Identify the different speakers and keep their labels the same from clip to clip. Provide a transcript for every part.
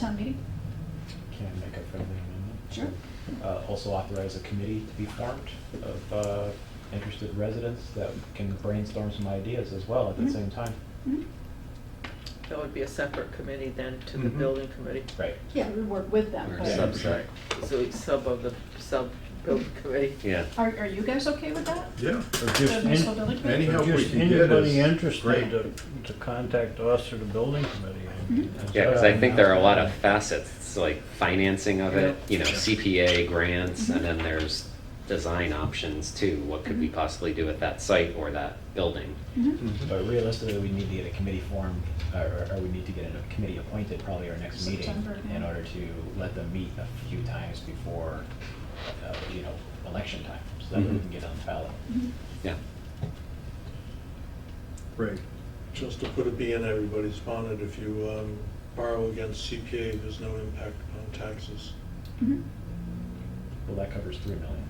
Speaker 1: Town meeting?
Speaker 2: Can I make a friendly amendment?
Speaker 1: Sure.
Speaker 2: Uh, Also authorize a committee to be formed of uh, interested residents that can brainstorm some ideas as well at the
Speaker 1: Mhm.
Speaker 2: same time.
Speaker 1: Mhm.
Speaker 3: That would be a separate committee then to the
Speaker 2: Mhm.
Speaker 3: building committee.
Speaker 2: Right.
Speaker 1: Yeah, we work with them,
Speaker 4: Or
Speaker 2: Yeah.
Speaker 1: but
Speaker 4: subset,
Speaker 3: So it's sub of the sub-building committee.
Speaker 4: yeah.
Speaker 1: are, are you guys okay with that?
Speaker 5: Yeah,
Speaker 6: Or
Speaker 1: The
Speaker 6: just,
Speaker 1: municipal
Speaker 6: an-
Speaker 1: building
Speaker 6: or
Speaker 1: committee?
Speaker 5: Any help we
Speaker 6: just
Speaker 5: can get
Speaker 6: anybody
Speaker 5: is
Speaker 6: interested
Speaker 5: great.
Speaker 6: to, to contact us or the building committee. I mean, uh, that's
Speaker 4: Yeah, because
Speaker 6: what
Speaker 4: I think there are a lot of facets, It's like financing of it, you know, CPA grants, and then there's design options too. What could we possibly do with that site or that building?
Speaker 1: Mhm.
Speaker 2: But realistically, we need to get a committee formed, or or we need to get a committee appointed probably our next meeting
Speaker 1: September, yeah.
Speaker 2: in order to let them meet a few times before, uh, you know, election time, so that we
Speaker 4: Mhm.
Speaker 2: can get on the ballot.
Speaker 1: Mhm.
Speaker 4: Yeah.
Speaker 5: right.
Speaker 7: Just to put a bee in everybody's bonnet, if you um, borrow against CPA, there's no impact on taxes.
Speaker 1: Mhm.
Speaker 2: Well, that covers three million.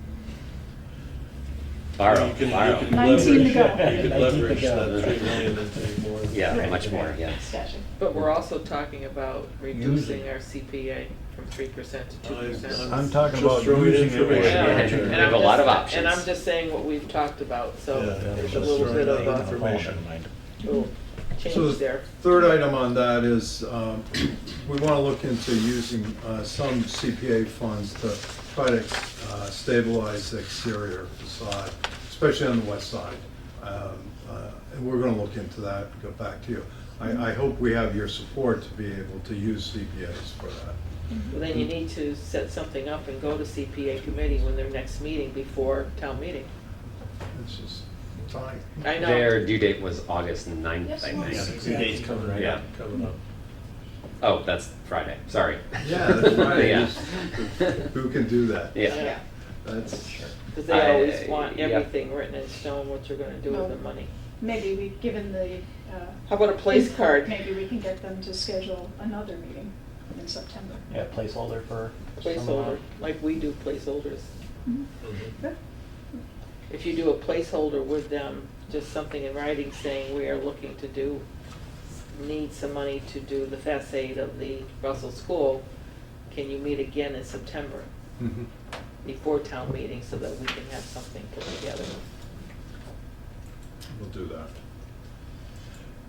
Speaker 4: Borrow,
Speaker 7: You can- you
Speaker 4: borrow.
Speaker 7: can
Speaker 1: Nineteen to
Speaker 7: leverage-
Speaker 1: go.
Speaker 7: You could
Speaker 2: 19 to
Speaker 7: leverage
Speaker 2: go.
Speaker 7: that three million into more.
Speaker 4: Yeah,
Speaker 1: Right.
Speaker 4: much more, yes.
Speaker 1: Gotcha.
Speaker 3: But we're also talking about reducing
Speaker 6: Using.
Speaker 3: our CPA from three percent to
Speaker 5: Oh,
Speaker 3: two
Speaker 7: I'm-
Speaker 3: percent.
Speaker 6: I'm talking
Speaker 7: just
Speaker 6: about
Speaker 7: throwing
Speaker 6: using it
Speaker 7: information
Speaker 6: where-
Speaker 7: out
Speaker 4: Yeah.
Speaker 7: there.
Speaker 4: We have a lot of
Speaker 3: And I'm
Speaker 4: options.
Speaker 3: just saying what we've talked about, so
Speaker 7: Yeah,
Speaker 3: there's
Speaker 7: just
Speaker 3: a little
Speaker 7: throwing
Speaker 3: bit of
Speaker 7: out
Speaker 3: a
Speaker 7: information.
Speaker 3: little
Speaker 5: So
Speaker 3: change
Speaker 5: the
Speaker 3: there.
Speaker 5: Third item on that is, um, we want to look into using uh, some CPA funds to try to uh, stabilize the exterior facade, especially on the west side. Um, uh, And we're going to look into that and go back to you. I, I hope we have your support to be able to use CPAs for that.
Speaker 3: Well, Then you need to set something up and go to CPA committee when their next meeting before town meeting.
Speaker 5: It's just time.
Speaker 3: I know.
Speaker 4: Their due date was August 9th,
Speaker 1: Yes,
Speaker 4: I
Speaker 1: yes.
Speaker 4: think.
Speaker 7: Two days
Speaker 2: coming
Speaker 4: right Yeah. up.
Speaker 7: Coming up.
Speaker 4: Oh, that's Friday, sorry.
Speaker 5: Yeah, that's right.
Speaker 4: Yeah.
Speaker 5: Who can do that?
Speaker 4: Yeah.
Speaker 5: That's,
Speaker 3: Because they always
Speaker 4: I-
Speaker 3: want
Speaker 4: yeah.
Speaker 3: everything written in stone, what you're gonna do with the
Speaker 1: No.
Speaker 3: money.
Speaker 1: Maybe we, given the. uh,
Speaker 3: How about a place
Speaker 1: input,
Speaker 3: card?
Speaker 1: Maybe we can get them to schedule another meeting in September.
Speaker 2: Yeah, placeholder for. some
Speaker 3: Placeholder,
Speaker 2: amount.
Speaker 3: like we do placeholders.
Speaker 1: Mhm.
Speaker 7: Mhm.
Speaker 1: Good.
Speaker 3: If you do a placeholder with them, just something in writing saying we are looking to do, need some money to do the facade of the Russell School, can you meet again in September
Speaker 5: mhm.
Speaker 3: before town meeting so that we can have something put together?
Speaker 5: We'll do that.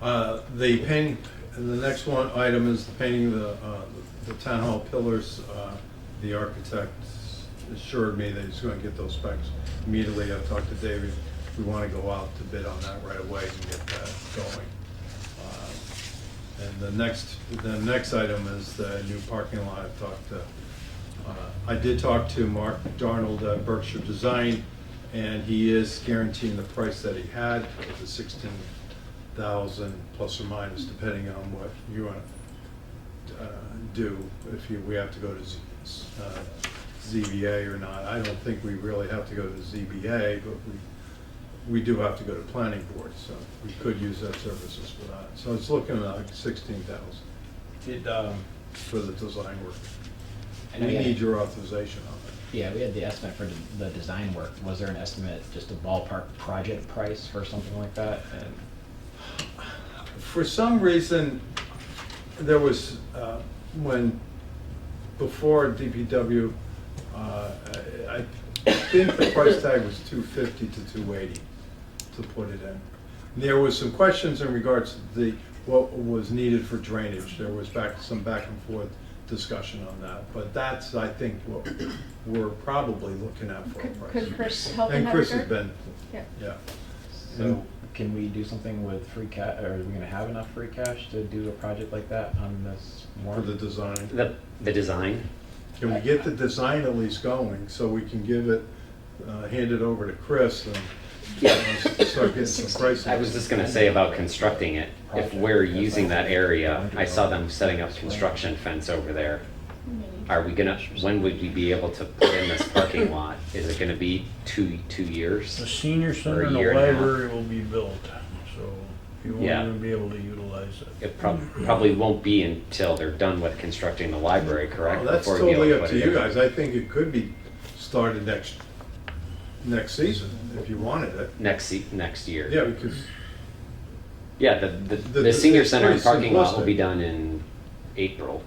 Speaker 5: Uh, The painting, the next one item is the painting of the, uh, the town hall pillars. Uh, The architect assured me that he's gonna get those specs immediately. I've talked to David. We wanna go out to bid on that right away and get that going. Uh, And the next, the next item is the new parking lot. I've talked to, uh, I did talk to Mark Darnold at Berkshire Design, and he is guaranteeing the price that he had, which is sixteen thousand plus or minus, depending on what you want to do, if you, we have to go to Z- uh, ZBA or not. I don't think we really have to go to ZBA, but we, we do have to go to planning board, so we could use that services for that. So it's looking like sixteen thousand
Speaker 2: Did, um,
Speaker 5: for the design work.
Speaker 2: and
Speaker 5: We
Speaker 2: I-
Speaker 5: need your authorization on
Speaker 2: Yeah, we had the estimate for the- the design work. Was there an estimate, just a ballpark project price for something like that? And
Speaker 5: it. For some reason, there was, uh, when, before DPW, uh, I I think the price tag was two fifty to two eighty to put it in. There was some questions in regards to the, what was needed for drainage. There was back, some back and forth discussion on that, but that's, I think, what we're probably looking at for a
Speaker 1: Could-
Speaker 5: price.
Speaker 1: Could Chris help in
Speaker 5: And
Speaker 1: that
Speaker 5: Chris has
Speaker 1: regard?
Speaker 5: been,
Speaker 1: Yeah.
Speaker 5: yeah.
Speaker 2: So
Speaker 5: Mm-hmm.
Speaker 2: can we do something with free ca, or are we gonna have enough free cash to do a project like that on this
Speaker 5: For
Speaker 2: warrant?
Speaker 5: the design.
Speaker 4: The, the design,
Speaker 5: Can we get the design at least going, so we can give it, uh, hand it over to Chris and uh, start getting some prices?
Speaker 4: I was just gonna say about constructing it, if we're using that area, I saw them setting up construction fence over there.
Speaker 1: Maybe.
Speaker 4: Are we gonna, when would we be able to put in this parking lot? Is it gonna be two, two
Speaker 6: The
Speaker 4: years?
Speaker 6: senior
Speaker 4: For
Speaker 6: center
Speaker 4: a
Speaker 6: and the
Speaker 4: year and a half.
Speaker 6: library will be built, so you won't
Speaker 4: Yeah.
Speaker 6: even be able to utilize it.
Speaker 4: It prob-
Speaker 5: Mm-hmm.
Speaker 4: probably won't be until they're done with constructing the library, correct?
Speaker 5: Well, Oh, that's
Speaker 4: Before you'll
Speaker 5: totally up
Speaker 4: put
Speaker 5: to
Speaker 4: it
Speaker 5: you
Speaker 4: in.
Speaker 5: guys, I think it could be started next, next season, if you wanted it.
Speaker 4: Next, se- next year.
Speaker 5: Yeah, because,
Speaker 4: Yeah, the, the,
Speaker 5: The-
Speaker 4: the senior
Speaker 5: it's
Speaker 4: center and
Speaker 5: pretty
Speaker 4: parking lot will
Speaker 5: simplistic.
Speaker 4: be done in April,